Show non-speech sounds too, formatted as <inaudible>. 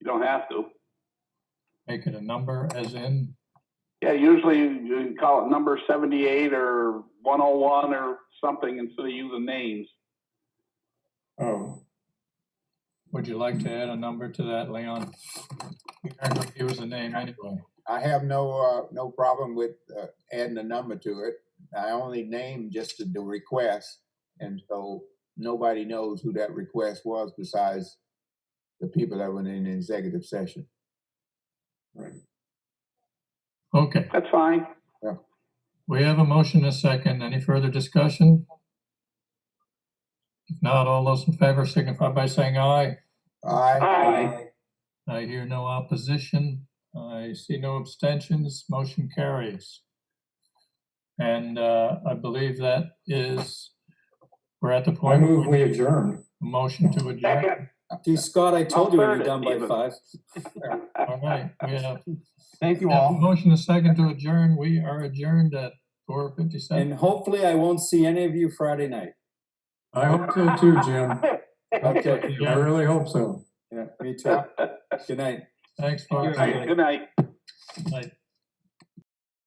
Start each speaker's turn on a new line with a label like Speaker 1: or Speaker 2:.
Speaker 1: You don't have to.
Speaker 2: Make it a number as in,
Speaker 1: Yeah, usually you you call it number seventy-eight or one oh one or something instead of using names.
Speaker 3: Oh,
Speaker 2: would you like to add a number to that, Leon? We aren't gonna use the name anyway.
Speaker 3: I have no, uh, no problem with, uh, adding a number to it. I only named just the request. And so nobody knows who that request was besides the people that were in the executive session.
Speaker 2: Okay,
Speaker 1: That's fine. <laughs>
Speaker 2: we have a motion, a second. Any further discussion? If not, all those in favor signify by saying aye.
Speaker 1: Aye.
Speaker 2: I hear no opposition. I see no abstentions. Motion carries. And uh, I believe that is, we're at the
Speaker 4: I
Speaker 2: point.
Speaker 4: move we adjourn.
Speaker 2: Motion to adjourn.
Speaker 1: Second,
Speaker 5: Gee, Scott, I told you we'd
Speaker 1: third
Speaker 5: be
Speaker 1: it
Speaker 5: done by
Speaker 1: even.
Speaker 5: five.
Speaker 2: All right, we have
Speaker 3: Thank you
Speaker 2: have a motion, a second to adjourn. We are adjourned at four fifty-seven.
Speaker 5: And hopefully I won't see any of you Friday night.
Speaker 4: I hope so too, Jim.
Speaker 5: <laughs> Okay,
Speaker 4: I really hope so.
Speaker 5: yeah, me too. Good night.
Speaker 2: Thanks,
Speaker 1: All
Speaker 2: folks.
Speaker 1: right, good night.
Speaker 2: Good night.